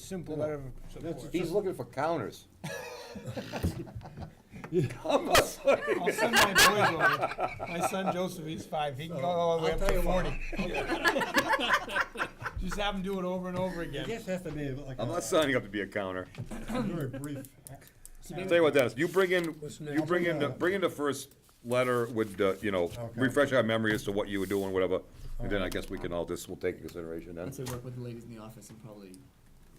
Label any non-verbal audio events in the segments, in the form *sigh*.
simple matter of. Support. He's looking *laughs* for counters. I'm I'll send my boys over. My son Joseph, he's five, he can go all the way I'll tell up to you what. forty. *laughs* Just have him do it over and over I again. guess it has to be like not a signing up to be a counter. very brief. Tell you what, Dennis, you bring in, you bring in, the- Listen, uh, bring in the first letter with, the, you know, Okay. refresh our memory as to what you were doing, whatever. And then I guess we can all, this will take into consideration then. I'd say work with the ladies in the office and probably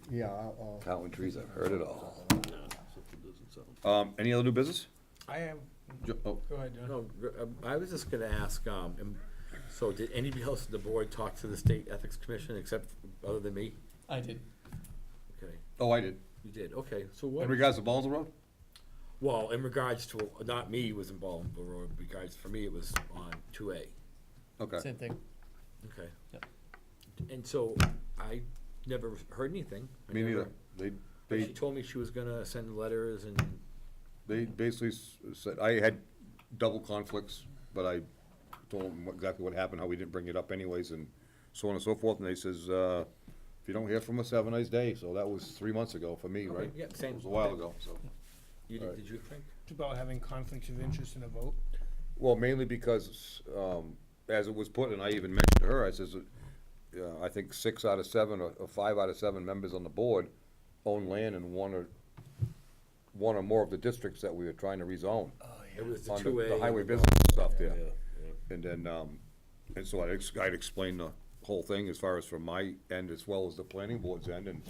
Yeah, I'll, I'll- Counting trees, I've heard it all. Um, any other new business? I am, Jo- oh, go ahead, John. No, gr- um, I was just gonna ask, um, am- so did anybody else on the board talk to the state ethics commission except, other than me? I did. Okay, Oh, I did. you did, okay, so In what, regards to Ballinsville Road? well, in regards to, not me was involved, but in regards, for me, it was on two A, Okay. Same thing. okay? Yep. And so I never heard anything. I Me never- neither. They, But they she told me she was gonna send letters and, They basically s- said, I had double conflicts, but I told them what- exactly what happened, how we didn't bring it up anyways, and so on and so forth, and they says, uh, if you don't hear from us, have a nice day, so that was three months ago for me, Okay, right? yeah, same. It was a while ago, so. you did, Alright. did you, Frank? It's about having conflicts of interest in a vote. Well, mainly because, um, as it was put, and I even mentioned to her, I says, uh, I think six out of seven, or, or five out of seven members on the board own land in one or, one or more of the districts that we were trying to rezone. It was the on two A. uh, the- the highway business stuff there. And then, um, and so I'd, ex- I'd explain the whole thing as far as from my end as well as the planning board's end and,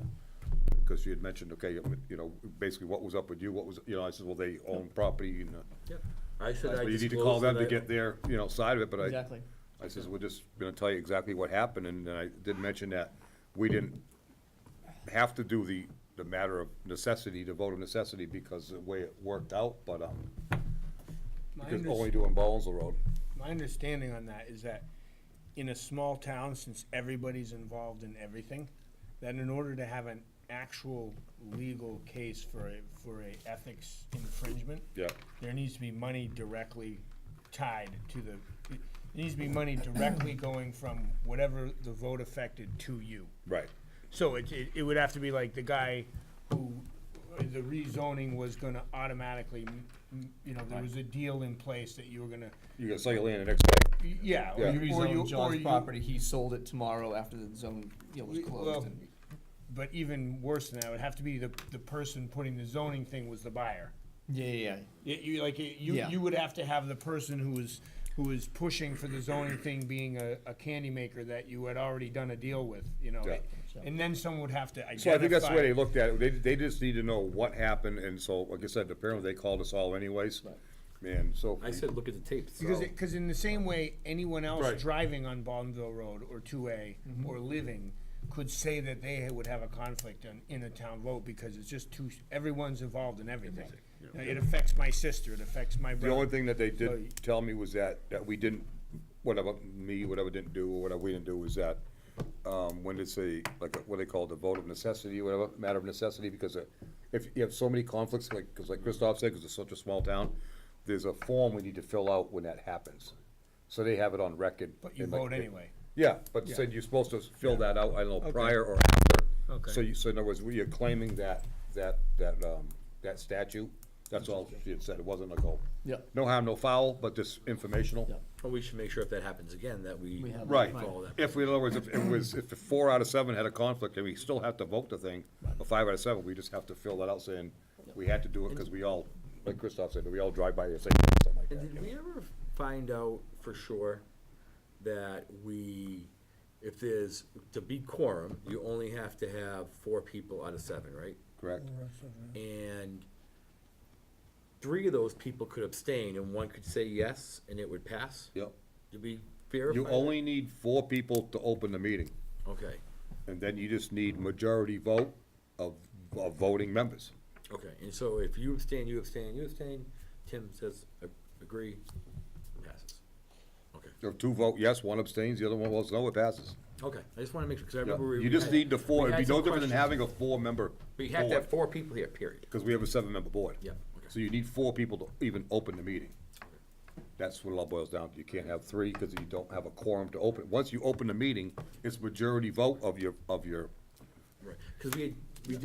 because she had mentioned, okay, you know, basically what was up with you, what was, you know, I said, well, they own property and, uh, Yep. I said I but you disclosed need to call them to that I- get their, you know, side of it, but I. Exactly. I says, we're just gonna tell you exactly what happened and then I did mention that we didn't have to do the, the matter of necessity, the vote of necessity because of the way it worked out, but, um, My because unders- only doing Ballinsville Road. My understanding on that is that in a small town, since everybody's involved in everything, that in order to have an actual legal case for a, for a ethics infringement, Yeah. there needs to be money directly tied to the, it needs to be money directly going from whatever the vote affected to you. Right. So it, it, it would have to be like the guy who, uh, the rezoning was gonna automatically, m- m- you know, there was a deal in place that you were gonna, You're gonna sell your land the next day. y- yeah, or Yeah. You you, or you, rezoned or John's you- property, he sold it tomorrow after the zone, you know, was We- well- closed and. But even worse than that, it would have to be the, the person putting the zoning thing was the buyer. Yeah, yeah, You, you like, it- you, Yeah. you would have to have the person who was, who was pushing for the zoning thing being a, a candy maker that you had already done a deal with, you know? Yeah. And then someone would have to identify. So I think that's the way they looked at it, they, they just need to know what happened, and so, like I said, apparently they called us all anyways. Man, so. I said, look at the tapes. Because, so- it- cause in the same way, anyone Right. else driving on Baldenville Road or two A or living could say that they would have a conflict in, in a town vote because it's just too, everyone's involved in everything. Now, It affects my sister, it affects my The only brother. thing that they So you- did tell me was that, that we didn't, whatever, me, whatever didn't do, or whatever we didn't do, was that, um, when it's a, like, what they call the vote of necessity, whatever, matter of necessity, because uh, if you have so many conflicts, like, because like Christoph said, because it's such a small town, there's a form we need to fill out when that happens. So they have it on record. But you and, like, vote they- anyway. Yeah, but said you're supposed to fill that out, I don't know, Okay. prior or after. Okay. So you, so in other words, you're claiming that, that, that, um, that statute, that's all she had said, it wasn't like a. Yeah. No harm, no foul, but just informational. Yeah. Well, we should make sure if that happens again, that we. We have- Right, Follow that. if we, in other words, if it was, if the four out of seven had a conflict, and we still have to vote the thing, or five out of seven, we just have to fill that out saying, we had to do it, because we all, like Christoph said, we all drive by the same, thing, something like And that. you did know. we ever find out for sure that we, if there's, to be quorum, you only have to have four people out of seven, right? Correct, And three of those people could abstain and one could say yes and it would pass? yep. Did we verify? You that? only need four people to open the meeting. Okay, And then you just need majority vote of, of voting members. okay. And so if you abstain, you abstain, you abstain, Tim says, "I agree, passes. Okay, If two vote yes, one abstains, the other one votes no, it passes. okay. I just wanna make sure, cause I Yeah. remember. we- You just need the four, we it'd had be some no different than questions. having a four-member We have to board, have four people here, period. because we have a seven-member board. Yeah, okay. So you need four people to even open the meeting. That's what it all boils down to. You can't have three, because you don't have a quorum to open. Once you open the meeting, it's majority vote of your, of your, Right, because we had